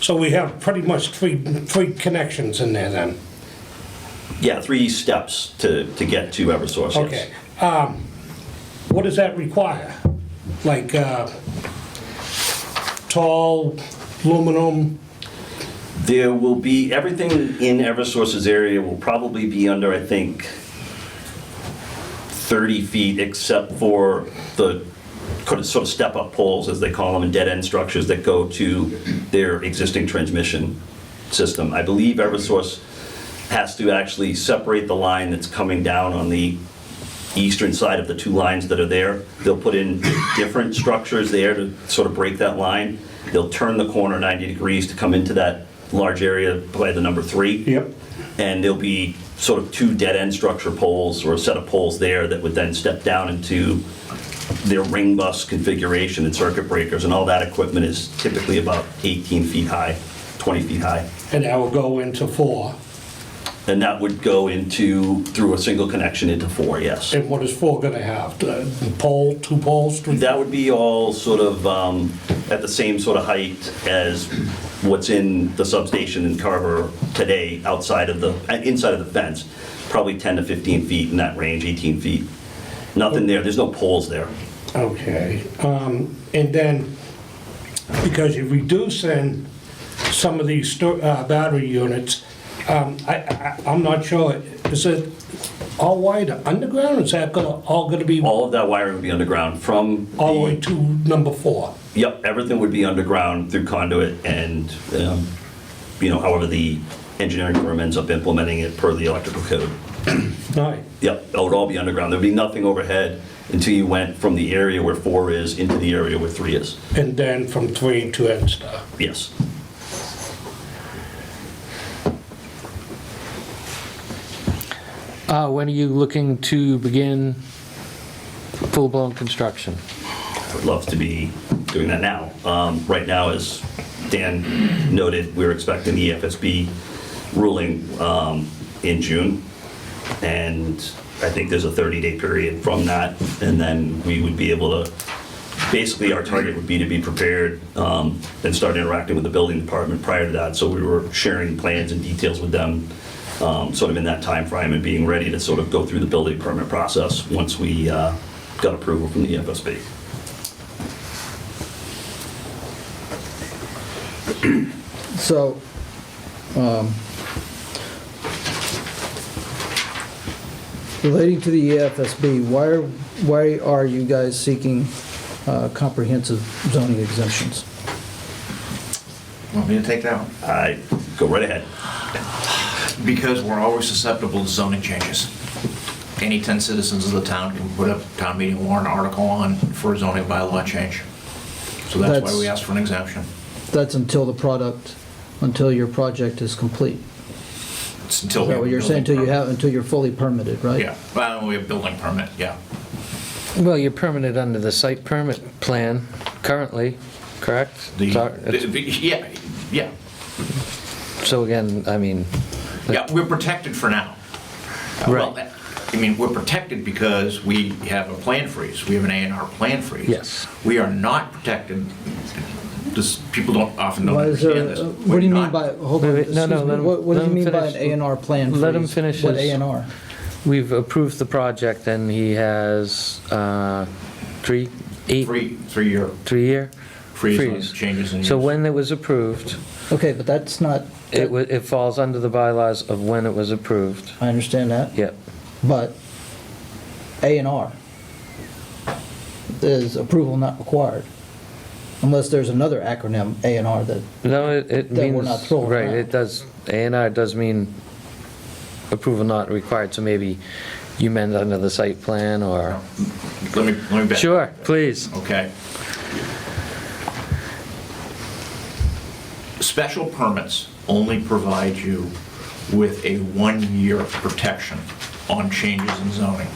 So we have pretty much three, three connections in there then. Yeah, three steps to, to get to Eversource, yes. Okay. Um, What does that require? Like uh, tall aluminum? There will be, everything in Eversource's area will probably be under, I think, 30 feet, except for the kind of sort of step-up poles, as they call them, and dead-end structures that go to their existing transmission system. I believe Eversource has to actually separate the line that's coming down on the eastern side of the two lines that are there. They'll put in different structures there to sort of break that line. They'll turn the corner 90 degrees to come into that large area by the number three. Yep. And there'll be sort of two dead-end structure poles or a set of poles there that would then step down into their ring bus configuration and circuit breakers and all that equipment is typically about 18 feet high, 20 feet high. And that will go into four. And that would go into, through a single connection into four, yes. And what is four gonna have? The Pole, two poles, three? That would be all sort of um, at the same sort of height as what's in the substation in Carver today, outside of the, uh, inside of the fence, probably 10 to 15 feet in that range, 18 feet. Nothing there, there's no poles there. Okay, um, and then, because you're reducing some of these sto- uh, battery units, um, I, I, I'm not sure, is it all wired underground, or is that gonna, all gonna be All of that wiring would be underground from. all the way to number four? Yep, everything would be underground through conduit and, um, you know, however the engineering firm ends up implementing it per the electrical code. Right, Yep, it would all be underground. There'd be nothing overhead until you went from the area where four is into the area where three is. and then from three to end star. Yes. Uh, When are you looking to begin full-blown construction? I would love to be doing that now. Um, Right now, as Dan noted, we're expecting the E EFSB ruling um, in June, and I think there's a 30-day period from that, and then we would be able to, basically, our target would be to be prepared um, and start interacting with the building department prior to that, so we were sharing plans and details with them, um, sort of in that time frame and being ready to sort of go through the building permit process once we uh, got approval from the E EFSB. So, um, relating to the E EFSB, why are, why are you guys seeking uh, comprehensive zoning exemptions? Want me to take that one? I go right ahead. Because we're always susceptible to zoning changes. Any 10 citizens of the town can put a town meeting warrant article on for a zoning bylaw change. So that's why That's- we asked for an exemption. That's until the product, until your project is complete. It's until. Is we that have what a you're saying, until building you permit. have, until you're fully permitted, right? Yeah, well, we have building permit, yeah. Well, you're permitted under the site permit plan currently, correct? The- Sorry, the- it's- the- Yeah, yeah, So again, I mean, yeah, we're protected for now. Uh, well, Right. that- I mean, we're protected because we have a plan freeze, we have an A and R plan freeze. Yes. We are not protected, this, people don't, often don't Why is there, understand this. uh, We're what do you mean not- by, hold Wait, on, wait, excuse no, me, no, let him- what what do let you him mean by finish. an A and R plan Let him freeze? finish What his- A and R? we've approved the project and he has uh, three, eight, Three, three-year three-year? freeze on Freeze. changes in use. So when it was approved, Okay, but that's not, it wa, it falls under the bylaws of when it was approved. I understand that. Yep, But A and R is approval not required, unless there's another acronym, A and R, that, no, it, it That we're means, not throwing right, out. it does, A and R does mean approval not required, so maybe you meant under the site plan or, Let me, let me back. sure, please. Okay. Special permits only provide you with a one-year protection on changes in zoning.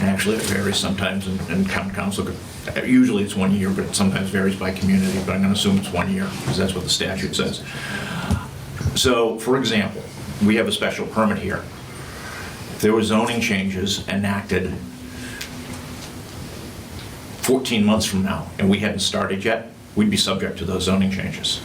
And actually, it varies sometimes, and and town council, could- usually it's one year, but it sometimes varies by community, but I'm going to assume it's one year, because that's what the statute says. So, for example, we have a special permit here. There were zoning changes enacted 14 months from now and we hadn't started yet, we'd be subject to those zoning changes.